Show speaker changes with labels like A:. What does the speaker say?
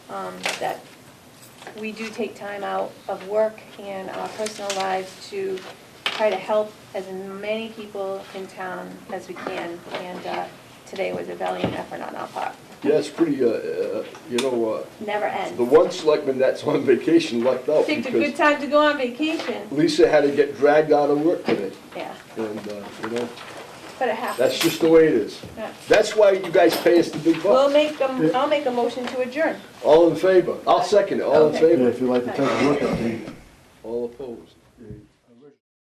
A: um, that we do take time out of work and our personal lives to try to help as many people in town as we can. And uh, today was a valiant effort on our part.
B: Yeah, it's pretty, uh, uh, you know,
A: Never
B: uh, the
A: ends.
B: one selectman that's on vacation lucked out
A: Picked a good
B: because
A: time to go on vacation.
B: Lisa had to get dragged out of work today.
A: Yeah,
B: And, uh, you know,
A: but it
B: that's
A: happens.
B: just the way it is.
A: Yeah.
B: That's why you guys pay us the big
A: We'll
B: bucks.
A: make, a- I'll make a motion to adjourn.
B: All in favor? I'll second it. All in
A: Okay.
C: Yeah,
B: favor?
C: if you'd like to take a look at the,
B: All opposed?
C: the